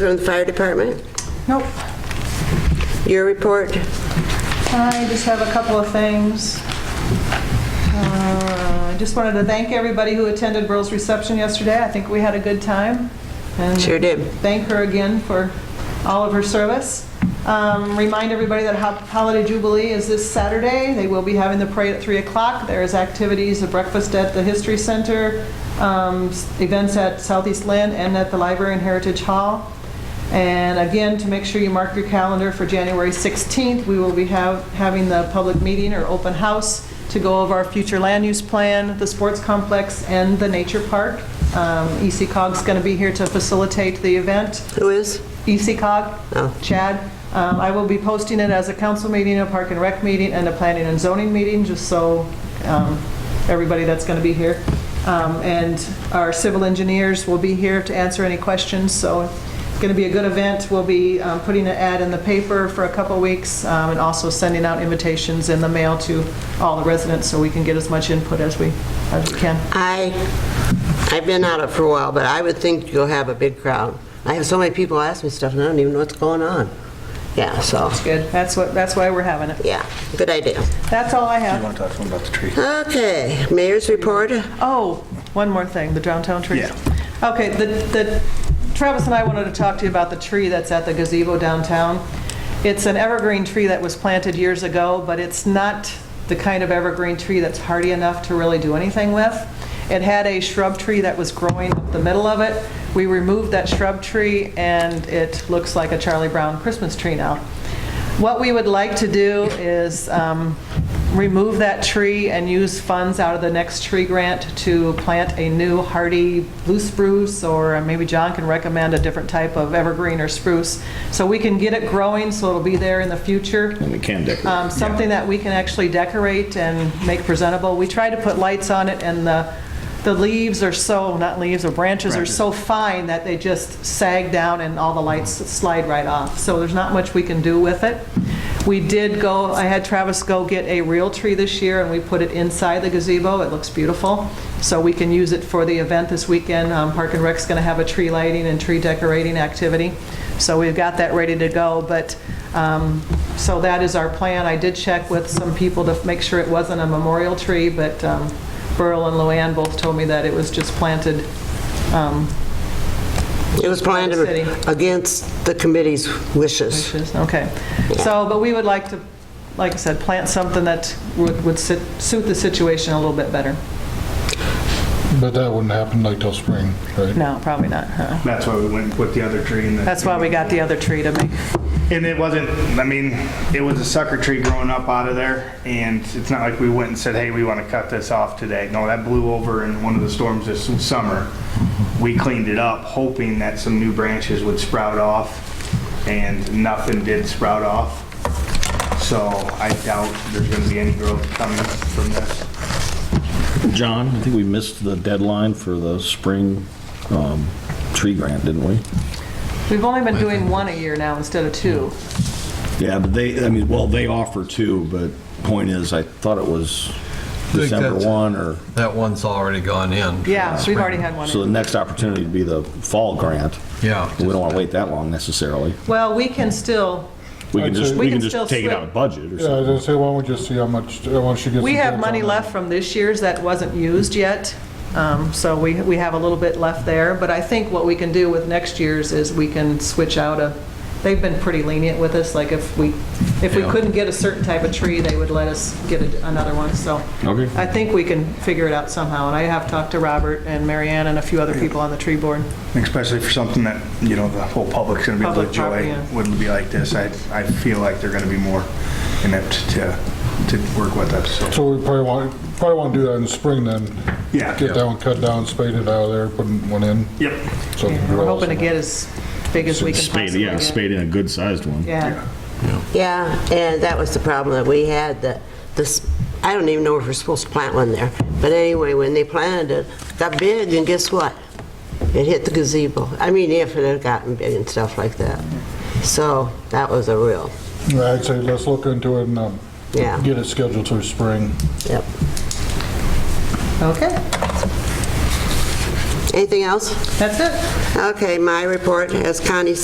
From the fire department, Nope. your report? I just have a couple of things. Uh, I Just wanted to thank everybody who attended Burl's reception yesterday. I think we had a good time. and Sure did. Thank her again for all of her service. Um, Remind everybody that Hop- Holiday Jubilee is this Saturday. They will be having the parade at 3 o'clock. There is activities, a breakfast at the History Center, um, s- events at Southeast Lynn and at the Library and Heritage Hall. And again, to make sure you mark your calendar for January 16th, we will be have, having the public meeting or open house to go over our future land use plan, the sports complex, and the nature park. Um, ECOG's going to be here to facilitate the event. Who is? E Oh. ECOG, Chad. Um, I will be posting it as a council meeting, a park and rec meeting, and a planning and zoning meeting, just so um, everybody that's going to be here. Um, And our civil engineers will be here to answer any questions, so it's going to be a good event. We'll be um, putting an ad in the paper for a couple weeks, um, and also sending out invitations in the mail to all the residents, so we can get as much input as we, as we can. I, I've been out of it for a while, but I would think you'll have a big crowd. I have so many people ask me stuff and I don't even know what's going on. Yeah, so, It's good. That's what, that's why we're having it. yeah, good idea. That's all I have. You want to talk to him about the tree? Okay, mayor's report? Oh, one more thing, the downtown trees. Okay, the, the, Travis and I wanted to talk to you about the tree that's at the gazebo downtown. It's an evergreen tree that was planted years ago, but it's not the kind of evergreen tree that's hardy enough to really do anything with. It had a shrub tree that was growing up the middle of it. We removed that shrub tree, and it looks like a Charlie Brown Christmas tree now. What we would like to do is um, remove that tree and use funds out of the next tree grant to plant a new hardy blue spruce, or maybe John can recommend a different type of evergreen or spruce, so we can get it growing, so it'll be there in the future. And we can decorate. Um, Something that we can actually decorate and make presentable. We try to put lights on it, and the, the leaves are so, not leaves, or branches are so fine that they just sag down and all the lights slide right off. So there's not much we can do with it. We did go, I had Travis go get a real tree this year, and we put it inside the gazebo. It looks beautiful. So we can use it for the event this weekend. Um, Park and Rec's going to have a tree lighting and tree decorating activity. So we've got that ready to go, but um, so that is our plan. I did check with some people to make sure it wasn't a memorial tree, but um, Burl and Luann both told me that it was just planted. um, It was planned against the committee's wishes. bushes. Okay. So, but we would like to, like I said, plant something that would would sit- suit the situation a little bit better. But that wouldn't happen like till spring, right? No, probably not, huh? That's why we went with the other tree. and the- That's why we got the other tree to make, And it wasn't, I mean, it was a sucker tree growing up out of there, and it's not like we went and said, hey, we want to cut this off today. No, that blew over in one of the storms this summer. We cleaned it up, hoping that some new branches would sprout off, and nothing did sprout off. So I doubt there's going to be any growth coming from this. John, I think we missed the deadline for the spring um, tree grant, didn't we? we've only been doing one a year now instead of two. Yeah, but they, I mean, well, they offer two, but point is, I thought it was think December that's- 1 or, That one's already gone in. Yeah, we've already had one. so the next opportunity would be the fall grant. Yeah. We don't want to wait that long necessarily. Well, we can still, We can just, We we can can still just take it slip- out of budget Yeah, I or was something. gonna say, why don't we just see how much, uh, once she gets. We some have bids money on it. left from this year's that wasn't used yet, um, so we, we have a little bit left there. But I think what we can do with next year's is we can switch out a, they've been pretty lenient with us, like if we, if we Yeah. couldn't get a certain type of tree, they would let us get a- another one, so. Okay. I think we can figure it out somehow, and I have talked to Robert and Marianne and a few other people on the tree board. Especially for something that, you know, the whole public's gonna be able to Public property, enjoy, yeah. wouldn't be like this. I, I feel like they're gonna be more inept to, to work with us, so. So we probably want, probably want to do that in spring then. Yeah. Get that one cut down, spade it out of there, put one in. Yep. so it We're grows. hoping to get as big as we can Spade, possibly yeah, get. spade in a good-sized one. Yeah, Yeah, and that was the problem that we had, that this, I don't even know if we're supposed to plant one there. But anyway, when they planted it, it got big, and guess what? It hit the gazebo. I mean, if it had gotten big and stuff like that. So that was a real, I'd say let's look into it and um, Yeah. get it scheduled for spring. yep. okay, Anything else? that's it. Okay, my report, as Connie